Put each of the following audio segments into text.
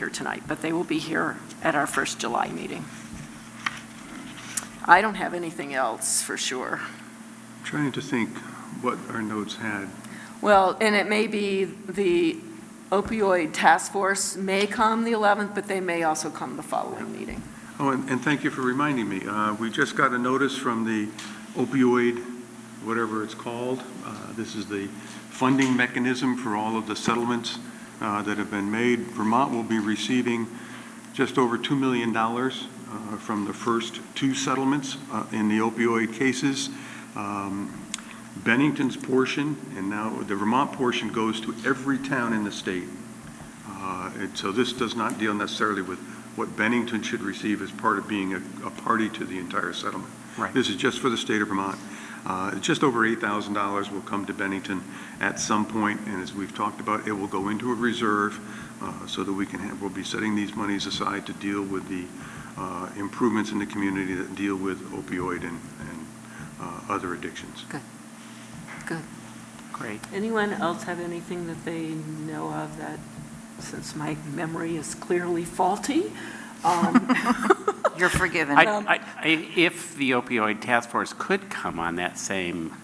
here tonight, but they will be here at our first July meeting. I don't have anything else for sure. Trying to think what our notes had. Well, and it may be the opioid task force may come the 11th, but they may also come the following meeting. Oh, and, and thank you for reminding me. Uh, we just got a notice from the opioid, whatever it's called. Uh, this is the funding mechanism for all of the settlements, uh, that have been made. Vermont will be receiving just over $2 million, uh, from the first two settlements, uh, in the opioid cases. Um, Bennington's portion, and now the Vermont portion goes to every town in the state. Uh, and so this does not deal necessarily with what Bennington should receive as part of being a, a party to the entire settlement. Right. This is just for the state of Vermont. Uh, Just over $8,000 will come to Bennington at some point, and as we've talked about, it will go into a reserve uh, so that we can have, we'll be setting these monies aside to deal with the uh, improvements in the community that deal with opioid and, and uh, other addictions. Great. Anyone else have anything that they know of that, since my memory is clearly faulty? um, You're forgiven. I, Um, I, I- if the opioid task force could come on that same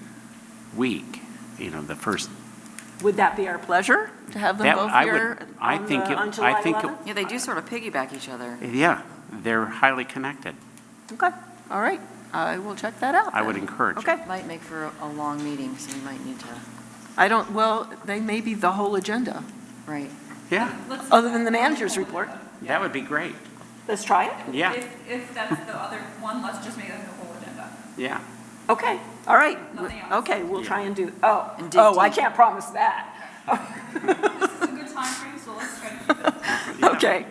week, you know, the first, Would that be our pleasure to have them That- both I would- here I on the, think it- on I July think it- 11th? Yeah, they do sort of piggyback each other. yeah, they're highly connected. Okay, all right, I will check that out. I would then. encourage it. Oh, Okay, Might make for a- a long meeting, so we might need to, I don't, well, they may be the whole agenda, right. Yeah, other than the manager's report. that would be great. Let's try it. Yeah, If, if that's the other one, let's just make it the whole agenda. yeah. Okay, all right. Nothing else. Okay, we'll try and do, oh, And dig oh, I deep. can't promise that. This is a good time frame, so let's try to keep it. Yeah. Okay,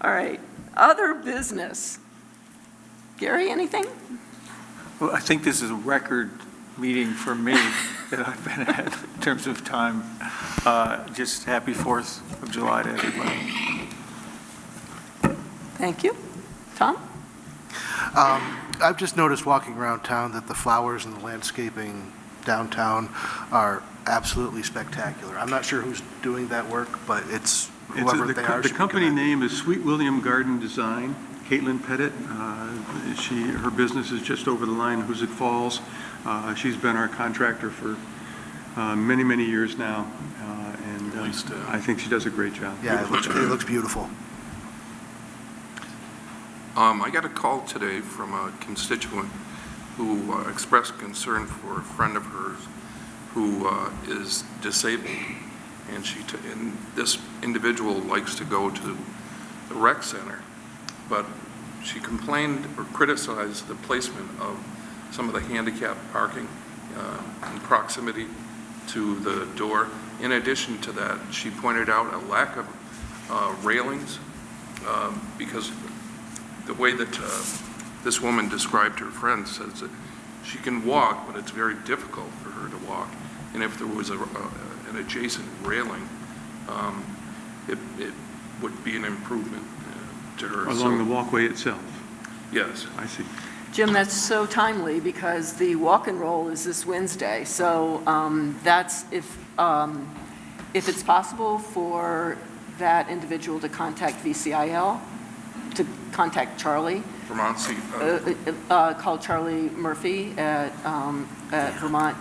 all right. Other business. Gary, anything? Well, I think this is a record meeting for me that I've been at in terms of time. Uh, Just happy 4th of July to everybody. Thank you. Tom? Um, I've just noticed walking around town that the flowers and the landscaping downtown are absolutely spectacular. I'm not sure who's doing that work, but it's It's- whoever the they co- are. The should be company commended. name is Sweet William Garden Design. Caitlin Pettit, uh, she, her business is just over the line, Hoosick Falls. Uh, She's been our contractor for uh, many, many years now, uh, and uh, least, uh, I think she does a great job. Yeah, it looks, it looks beautiful. Um, I got a call today from a constituent who uh, expressed concern for a friend of hers who uh, is disabled. And she, t- and this individual likes to go to the rec center, but she complained or criticized the placement of some of the handicap parking uh, in proximity to the door. In addition to that, she pointed out a lack of uh, railings um, because the way that uh, this woman described her friend says that she can walk, but it's very difficult for her to walk. And if there was a, a- an adjacent railing, um, it, it would be an improvement uh, to her. Along the So- walkway itself, Yes. I see. Jim, that's so timely because the walk and roll is this Wednesday. So um, that's, if, um, if it's possible for that individual to contact VCIL, to contact Charlie, Vermont Sea, uh, uh, uh, uh, call Charlie Murphy at um, at Vermont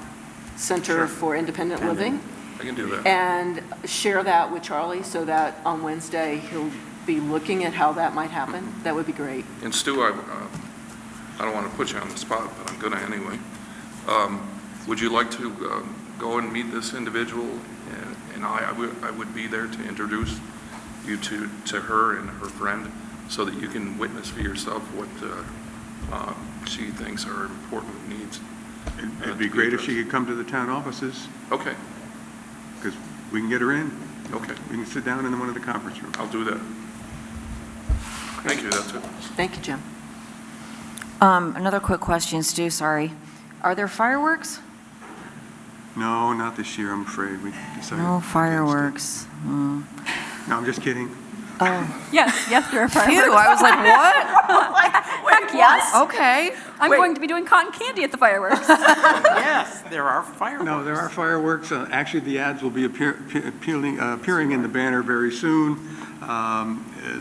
Center Sure. for Independent Living I can do that. and share that with Charlie so that on Wednesday, he'll be looking at how that might happen. That would be great. And Stu, I, uh, I don't want to put you on the spot, but I'm going to anyway. Um, Would you like to um, go and meet this individual? And- And I, I would- I would be there to introduce you to, to her and her friend, so that you can witness for yourself what uh, uh, she thinks are important needs. It'd be great if she could come to the town offices, Okay, because we can get her in, okay, we can sit down in one of the conference rooms. I'll do that. Thank you, that's it. Thank you, Jim. Um, Another quick question, Stu, sorry. Are there fireworks? No, not this year, I'm afraid, we decided. No fireworks. Mm. No, I'm just kidding. Oh, Yes, yes, there are phew, fireworks. I was like, what? Heck Oh, yes. Okay. I'm going to be doing cotton candy at the fireworks. Yes, there are fireworks. No, there are fireworks. Uh, Actually, the ads will be appear- appealing- uh, appearing in the banner very soon. Um, uh,